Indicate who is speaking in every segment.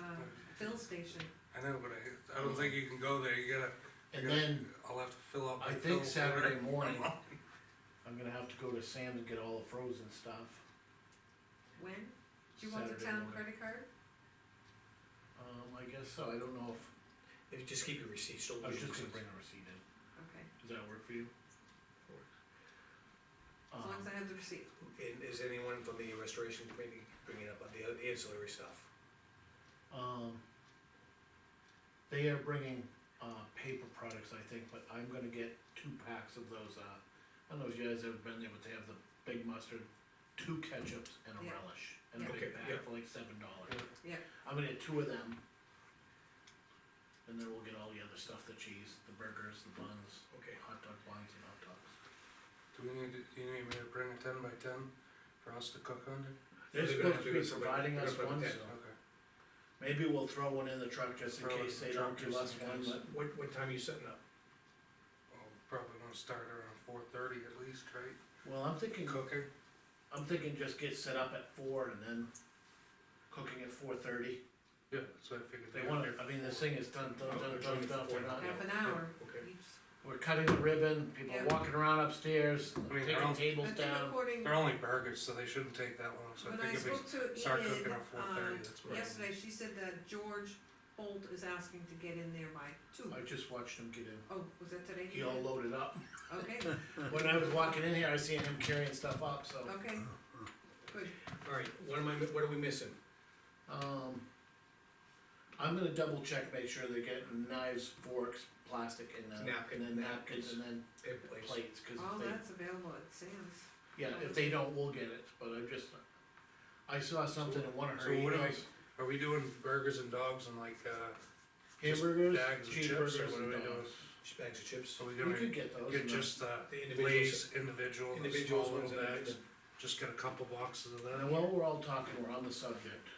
Speaker 1: uh, fill station.
Speaker 2: I know, but I, I don't think you can go there, you gotta. you
Speaker 3: And
Speaker 2: gotta-
Speaker 3: then,
Speaker 2: I'll have to fill up.
Speaker 3: I
Speaker 2: my
Speaker 3: think
Speaker 2: fill
Speaker 3: Saturday
Speaker 2: order.
Speaker 3: morning, I'm gonna have to go to Sam and get all the frozen stuff.
Speaker 1: When? Do you want the
Speaker 3: Saturday
Speaker 1: town
Speaker 3: morning.
Speaker 1: credit card?
Speaker 3: Um, I guess so, I don't know if,
Speaker 4: If you just keep your receipts, don't
Speaker 3: I was
Speaker 4: lose
Speaker 3: just gonna
Speaker 4: them.
Speaker 3: bring a receipt in,
Speaker 1: Okay,
Speaker 3: does that work for you?
Speaker 1: as long as
Speaker 3: Um,
Speaker 1: I have the receipt.
Speaker 4: And is anyone from the restoration committee bringing up the other ancillary stuff?
Speaker 3: um, They are bringing, uh, paper products, I think, but I'm gonna get two packs of those, uh, I don't know if you guys have been there, but they have the big mustard, two ketchups and a
Speaker 1: Yeah.
Speaker 3: relish, and a
Speaker 1: Yeah.
Speaker 3: big
Speaker 4: Okay,
Speaker 3: bag
Speaker 4: yeah.
Speaker 3: for like seven dollars.
Speaker 1: Yeah.
Speaker 3: I'm gonna get two of them. And then we'll get all the other stuff, the cheese, the burgers, the buns,
Speaker 4: Okay.
Speaker 3: hot dog buns and hot dogs.
Speaker 2: Do we need, to- do you need me to bring a ten by ten for us to cook under?
Speaker 3: They're
Speaker 4: They're gonna
Speaker 3: supposed to
Speaker 4: do
Speaker 3: be
Speaker 4: it, so we're-
Speaker 3: providing
Speaker 4: we're
Speaker 3: us
Speaker 4: gonna put
Speaker 3: one,
Speaker 4: that-
Speaker 3: so
Speaker 2: Okay.
Speaker 3: maybe we'll throw one in the truck just in
Speaker 2: Throw it in
Speaker 3: case
Speaker 2: the
Speaker 3: they
Speaker 2: truck
Speaker 3: don't give
Speaker 2: just
Speaker 3: us
Speaker 2: in
Speaker 3: one,
Speaker 2: case.
Speaker 3: but.
Speaker 4: What, what time are you setting up?
Speaker 2: I'll probably wanna start around four thirty at least, right?
Speaker 3: Well, I'm thinking,
Speaker 2: Cooking,
Speaker 3: I'm thinking just get set up at four and then cooking at four thirty.
Speaker 2: yeah, so I figured.
Speaker 3: They
Speaker 2: they'd
Speaker 3: wanna,
Speaker 2: be-
Speaker 3: I mean, this thing is done, done, done, done, done, we're
Speaker 2: Uh,
Speaker 3: not,
Speaker 1: Half an hour.
Speaker 4: Okay.
Speaker 1: each.
Speaker 3: we're cutting the ribbon, people are
Speaker 1: Yeah.
Speaker 3: walking around upstairs,
Speaker 2: I mean, they're
Speaker 3: taking
Speaker 2: all-
Speaker 3: tables
Speaker 1: I think
Speaker 3: down.
Speaker 1: according,
Speaker 2: They're only burgers, so they shouldn't take that long, so I
Speaker 1: when I
Speaker 2: think if
Speaker 1: spoke
Speaker 2: we start
Speaker 1: to
Speaker 2: cooking
Speaker 1: Ian,
Speaker 2: at four
Speaker 1: um,
Speaker 2: thirty, that's where.
Speaker 1: yesterday, she said that George Holt is asking to get in there by two.
Speaker 3: I just watched him get in,
Speaker 1: Oh, was that today?
Speaker 3: he all loaded up.
Speaker 1: Okay,
Speaker 3: When I was walking in here, I seen him carrying stuff up, so,
Speaker 1: okay, good.
Speaker 4: Alright, what am I, mi- what are we missing?
Speaker 3: um. I'm gonna double check, make sure they get knives, forks, plastic and then,
Speaker 4: Napkin,
Speaker 3: and then napkins and then
Speaker 4: Paper plates?
Speaker 3: plates, cause
Speaker 1: All
Speaker 3: if they,
Speaker 1: that's available at Sam's.
Speaker 3: yeah, if they don't, we'll get it, but I'm just. I saw something in one of her
Speaker 2: So what do I-
Speaker 3: emails,
Speaker 2: Are we doing burgers and dogs and like, uh, just
Speaker 3: hamburgers,
Speaker 2: bags of chips, or
Speaker 3: cheeseburgers
Speaker 2: what do
Speaker 3: and
Speaker 2: we do?
Speaker 3: dogs.
Speaker 4: Just Bags of chips?
Speaker 2: so we
Speaker 3: We
Speaker 2: gonna
Speaker 3: could get those.
Speaker 2: get
Speaker 3: and
Speaker 2: just the
Speaker 4: The
Speaker 2: Lay's
Speaker 4: individuals,
Speaker 2: individual, the
Speaker 4: individuals
Speaker 2: small
Speaker 4: ones
Speaker 2: little
Speaker 4: that are,
Speaker 2: bags, just get a couple boxes of
Speaker 3: then- And
Speaker 2: that.
Speaker 3: while we're all talking, we're on the subject.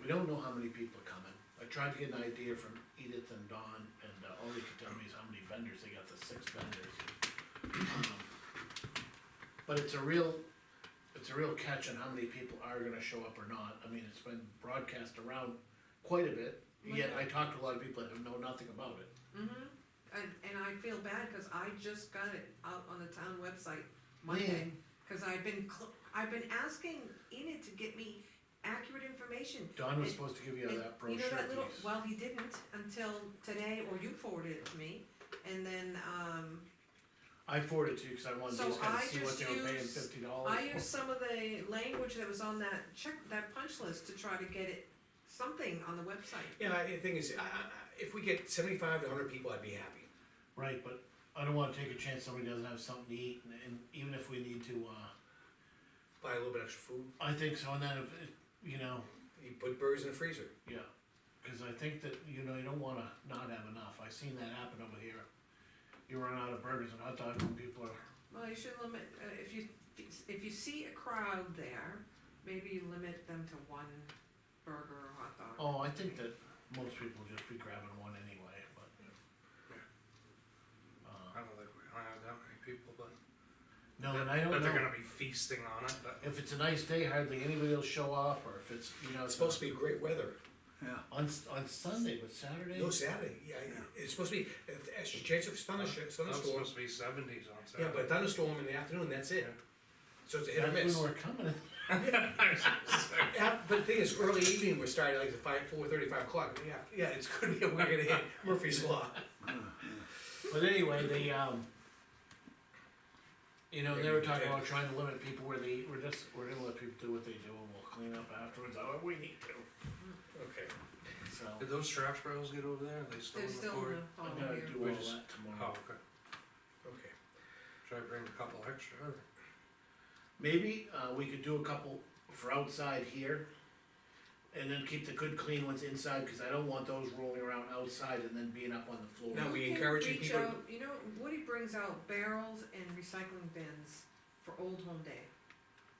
Speaker 3: We don't know how many people are coming. I tried to get an idea from Edith and Don, and uh, all they could tell me is how many vendors, they got the six vendors. Um, But it's a real, it's a real catch on how many people are gonna show up or not. I mean, it's been broadcast around quite a bit, yet I talked to a lot of people that know nothing about it.
Speaker 1: Mm-hmm, and, and I feel bad, cause I just got it out on the town website Monday, cause I've been, cl- I've been asking Enid to get me accurate information.
Speaker 3: Don was
Speaker 1: It-
Speaker 3: supposed to give you
Speaker 1: And
Speaker 3: that
Speaker 1: You know
Speaker 3: brochure
Speaker 1: that little,
Speaker 3: piece.
Speaker 1: well, he didn't until today, or you forwarded it to me, and then, um,
Speaker 3: I forwarded it to you, cause I wanted
Speaker 1: So
Speaker 3: these guys
Speaker 1: I
Speaker 3: to see what
Speaker 1: just
Speaker 3: they were paying
Speaker 1: use-
Speaker 3: fifty dollars
Speaker 1: I used some of the language that was on that check, that punch list to try to get it, something on the website.
Speaker 4: yeah, I- the thing is, I, I, I- if we get seventy-five to hundred people, I'd be happy.
Speaker 3: Right, but I don't wanna take a chance somebody doesn't have something to eat, and, and even if we need to, uh,
Speaker 4: Buy a little bit extra food,
Speaker 3: I think so, and then if, it- you know,
Speaker 4: you put burgers in the freezer.
Speaker 3: yeah. Cause I think that, you know, you don't wanna not have enough, I seen that happen over here. You run out of burgers and hot dogs and people are,
Speaker 1: Well, you should limit, uh, if you, if you see a crowd there, maybe you limit them to one burger or hot dog.
Speaker 3: oh, I think that most people will just be grabbing one anyway, but.
Speaker 2: I
Speaker 3: Uh,
Speaker 2: don't think we're gonna have that many people, but.
Speaker 3: No, and I don't
Speaker 2: But they're
Speaker 3: know,
Speaker 2: gonna be feasting on it, but.
Speaker 3: if it's a nice day, hardly anybody will show up, or if it's, you know,
Speaker 4: It's
Speaker 3: it's
Speaker 4: supposed to be great weather.
Speaker 3: on, s- on Sunday, but Saturday.
Speaker 4: No, Saturday, yeah, it's supposed to be, it's a chance of thunderstorm,
Speaker 2: That's
Speaker 4: thunderstorm.
Speaker 2: supposed to be seventies on
Speaker 4: Yeah,
Speaker 2: Saturday.
Speaker 4: but thunderstorm in the afternoon, that's it. So it's a hit or
Speaker 3: That's
Speaker 4: miss.
Speaker 3: when we're coming,
Speaker 4: Yeah, but the thing is, early evening, we're starting like at five, four thirty, five o'clock, yeah, yeah, it's gonna be, we're gonna hit Murphy's Law.
Speaker 3: But anyway, the, um, you know, they were talking about trying to limit people where they, eat. we're just, we're gonna let people do what they do and we'll clean up afterwards, however we need to,
Speaker 4: Okay.
Speaker 3: so.
Speaker 2: Did those trash barrels get over there? Are they still
Speaker 1: They're
Speaker 2: in the
Speaker 1: still
Speaker 2: quarry?
Speaker 1: in the hall
Speaker 3: I'm gonna
Speaker 1: here.
Speaker 3: do all
Speaker 2: We
Speaker 3: that
Speaker 2: just- Oh,
Speaker 3: tomorrow.
Speaker 2: okay.
Speaker 4: Okay,
Speaker 2: Should I bring a couple extra? or-
Speaker 3: Maybe, uh, we could do a couple for outside here. And then keep the good clean ones inside, cause I don't want those rolling around outside and then being up on the floor.
Speaker 4: No. Now, we
Speaker 1: You can
Speaker 4: encourage you
Speaker 1: reach
Speaker 4: people to-
Speaker 1: out- You know, Woody brings out barrels and recycling bins for Old Home Day.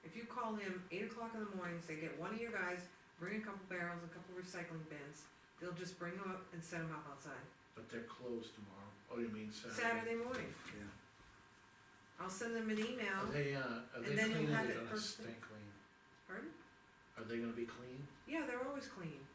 Speaker 1: If you call him eight o'clock in the morning, say, get one of your guys, bring a couple barrels, a couple recycling bins, they'll just bring them up and set them up outside,
Speaker 3: But they're closed tomorrow, oh, you mean Saturday?
Speaker 1: Saturday morning.
Speaker 5: Yeah.
Speaker 1: I'll send them an
Speaker 3: Are
Speaker 1: email,
Speaker 3: they, uh, are
Speaker 1: And
Speaker 3: they
Speaker 1: then you'll
Speaker 3: clean or
Speaker 1: have
Speaker 3: they
Speaker 1: it
Speaker 3: gonna
Speaker 1: first thing.
Speaker 3: stay clean?
Speaker 1: pardon?
Speaker 3: Are they gonna be clean?
Speaker 1: Yeah, they're always clean.